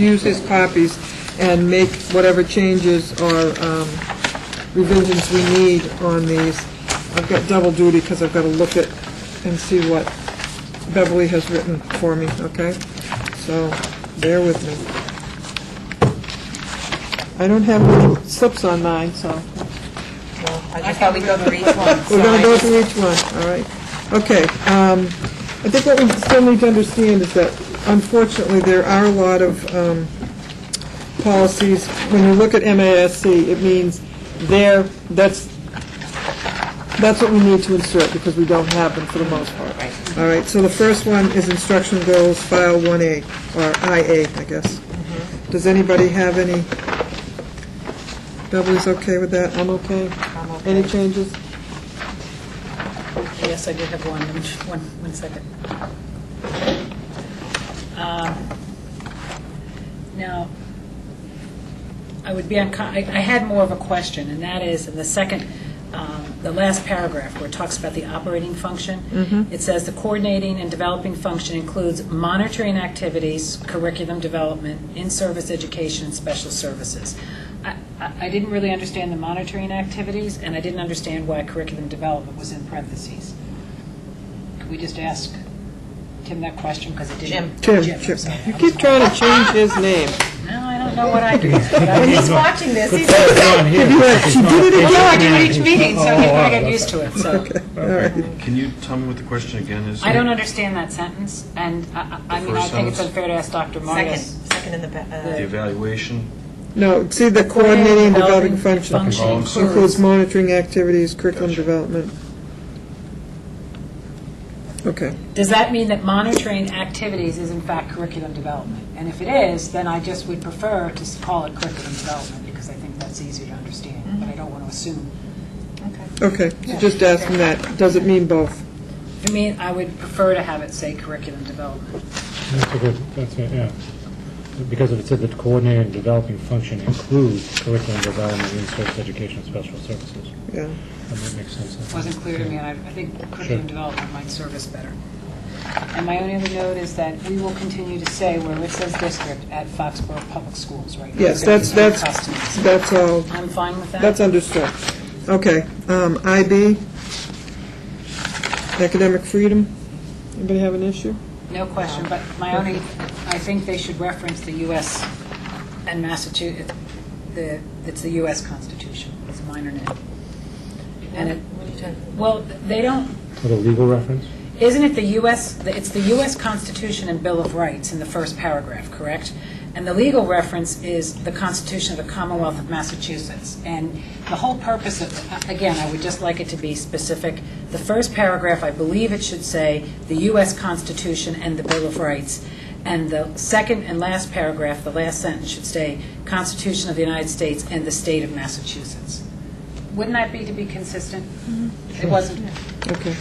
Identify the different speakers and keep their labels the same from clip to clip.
Speaker 1: use his copies and make whatever changes or um, revisions we need on these. I've got double duty because I've got to look at and see what Beverly has written for me, okay? So bear with me. I don't have any slips on mine, so.
Speaker 2: I just thought we'd go through each one.
Speaker 1: We're going to
Speaker 2: so
Speaker 1: go
Speaker 2: I-
Speaker 1: through each one, all right. Okay, um, I think what we still need to understand is that unfortunately, there are a lot of um, policies, when you look at MASC, it means there, that's, that's what we need to insert, because we don't have them for the most part.
Speaker 2: Right.
Speaker 1: All right, so the first one is instruction goals, file 1A, or IA, I guess.
Speaker 2: Mm-hmm.
Speaker 1: Does anybody have any, Beverly's okay with that? I'm okay?
Speaker 2: I'm okay.
Speaker 1: Any changes?
Speaker 3: Yes, I did have one, Let me just- one, one second. Um, Now, I would be, uncom- I I had more of a question, and that is, in the second, um, the last paragraph where it talks about the operating function, it says, "The coordinating and developing function includes monitoring activities, curriculum development, in-service education, and special services." I- I I didn't really understand the monitoring activities, and I didn't understand why curriculum development was in parentheses. Could we just ask Tim that question, because it didn't...
Speaker 1: Jim,
Speaker 3: I'm
Speaker 1: Jim,
Speaker 3: sorry.
Speaker 1: you keep trying to change his name.
Speaker 3: No, I don't know what I do.
Speaker 2: When he's watching this, he's,
Speaker 1: She did it
Speaker 3: Well, no, I do
Speaker 1: again.
Speaker 3: it each meeting, so I get- I
Speaker 1: Oh,
Speaker 3: get used to it, so.
Speaker 1: All right,
Speaker 4: Can you tell me what the question again is?
Speaker 3: I don't understand that sentence, and I, I I mean, I
Speaker 4: First
Speaker 3: think it's
Speaker 4: sentence.
Speaker 3: unfair to ask Dr.
Speaker 2: second,
Speaker 3: Martis.
Speaker 2: second in the, ba-
Speaker 4: The
Speaker 2: uh,
Speaker 4: evaluation,
Speaker 1: no, see, the coordinating and developing function
Speaker 4: function
Speaker 1: includes monitoring activities, curriculum development. Okay,
Speaker 3: Does that mean that monitoring activities is in fact curriculum development? And if it is, then I just would prefer to s- call it curriculum development, because I think that's easier to understand, but I don't want to assume.
Speaker 1: okay, so just ask him that, does it mean both?
Speaker 3: I mean, I would prefer to have it say curriculum development.
Speaker 5: That's a good, that's, a- yeah. Because it said that coordinating and developing function includes curriculum development, in-service education, and special services.
Speaker 1: Yeah,
Speaker 5: And that makes sense. I think.
Speaker 3: Wasn't clear to me, and I I think curriculum
Speaker 5: Sure.
Speaker 3: development might serve us better. And my only other note is that we will continue to say where it says district at Foxborough Public Schools, right?
Speaker 1: yes, that's, that's,
Speaker 3: Customers.
Speaker 1: that's all,
Speaker 3: I'm fine with that.
Speaker 1: that's understood. Okay, um, IB, academic freedom, anybody have an issue?
Speaker 3: No question, but my only, I think they should reference the U.S. and Massachusetts, the, it's the U.S. Constitution, it's a minor name. And it,
Speaker 2: what are you talking-
Speaker 3: well, they don't,
Speaker 5: With a legal reference?
Speaker 3: Isn't it the U.S., it's the U.S. Constitution and Bill of Rights in the first paragraph, correct? And the legal reference is the Constitution of the Commonwealth of Massachusetts. And the whole purpose of, again, I would just like it to be specific. The first paragraph, I believe it should say, the U.S. Constitution and the Bill of Rights. And the second and last paragraph, the last sentence should say, Constitution of the United States and the State of Massachusetts. Wouldn't that be to be consistent? It wasn't,
Speaker 1: Okay.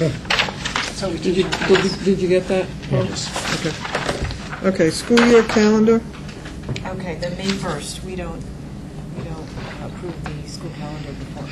Speaker 3: so we
Speaker 1: Did Mm-hmm. you, did
Speaker 3: teach our
Speaker 1: you,
Speaker 3: class.
Speaker 1: did you get that?
Speaker 5: Yes.
Speaker 1: Okay. Okay, school year calendar,
Speaker 2: okay, then May 1st, we don't, we don't approve the school calendar before.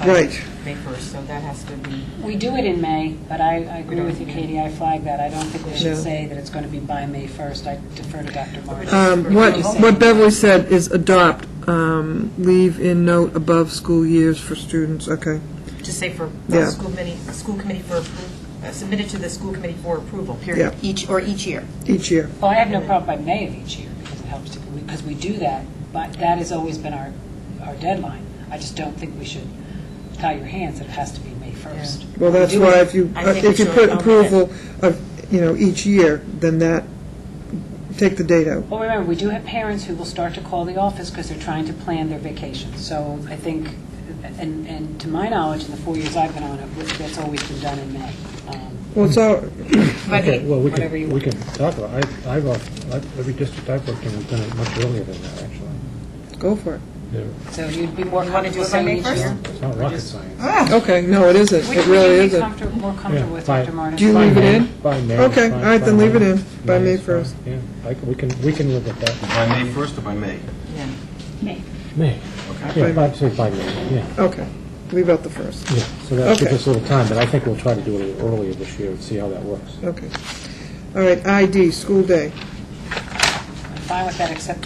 Speaker 2: by
Speaker 1: Right.
Speaker 2: May 1st, so that has to be,
Speaker 3: We do it in May, but I, I agree with
Speaker 1: Mm.
Speaker 3: you, Katie, I flagged that. I don't think we should
Speaker 1: No.
Speaker 3: say that it's going to be by May 1st. I defer to Dr. Martin.
Speaker 1: um, what, what Beverly said is adopt, um, leave in note above school years for students, okay.
Speaker 2: just say for, uh,
Speaker 1: Yeah.
Speaker 2: school committee, school committee for, appro- uh, submitted to the school committee for approval, period.
Speaker 1: Yeah.
Speaker 2: Each, or each year.
Speaker 1: Each year,
Speaker 3: Well, I have no problem by May of each year, because it helps to, because we do that, but that has always been our, our deadline. I just don't think we should tie your hands that it has to be May 1st.
Speaker 1: well, that's
Speaker 2: Do
Speaker 1: why
Speaker 2: it.
Speaker 1: if you,
Speaker 2: I think
Speaker 1: if you
Speaker 2: it's
Speaker 1: put
Speaker 2: your-
Speaker 1: approval of, you know, each year, then that, take the date out.
Speaker 3: Well, remember, we do have parents who will start to call the office because they're trying to plan their vacation. So I think, and, and to my knowledge, in the four years I've been on it, that's always been done in May. Um,
Speaker 1: Well, it's all,
Speaker 5: Okay, well, we
Speaker 3: whatever you
Speaker 5: can, we can talk about, I, I've, al- I've- every district I've worked in, we've done it much earlier than that, actually.
Speaker 1: go for it.
Speaker 3: So you'd be more
Speaker 2: You wanna do
Speaker 3: comfortable
Speaker 2: it by May
Speaker 3: saying each
Speaker 1: Oh,
Speaker 2: first?
Speaker 3: year?
Speaker 5: It's not rocket science.
Speaker 2: Ah.
Speaker 1: Okay, no, it isn't,
Speaker 3: Which
Speaker 1: it
Speaker 3: would you
Speaker 1: really
Speaker 3: be
Speaker 1: isn't.
Speaker 3: comfortable, more comfortable with,
Speaker 5: Fine.
Speaker 3: Dr. Martis?
Speaker 1: Do you
Speaker 5: By
Speaker 1: leave it
Speaker 5: May-
Speaker 1: in?
Speaker 5: By May.
Speaker 1: Okay,
Speaker 5: fine,
Speaker 1: all right, then
Speaker 5: by
Speaker 1: leave it
Speaker 5: May.
Speaker 1: in, by May
Speaker 5: is fine,
Speaker 1: 1st.
Speaker 5: Yeah, I c we can, we can live with that.
Speaker 4: by May 1st or by May?
Speaker 2: Yeah.
Speaker 5: May.
Speaker 4: Okay.
Speaker 5: Yeah, by, say by May, yeah.
Speaker 1: Okay, leave out the first,
Speaker 5: Yeah, so that gives
Speaker 1: Okay.
Speaker 5: us a little time, but I think we'll try to do it a little earlier this year and see how that works.
Speaker 1: okay. All right, ID, school day.
Speaker 3: I'm fine with that, except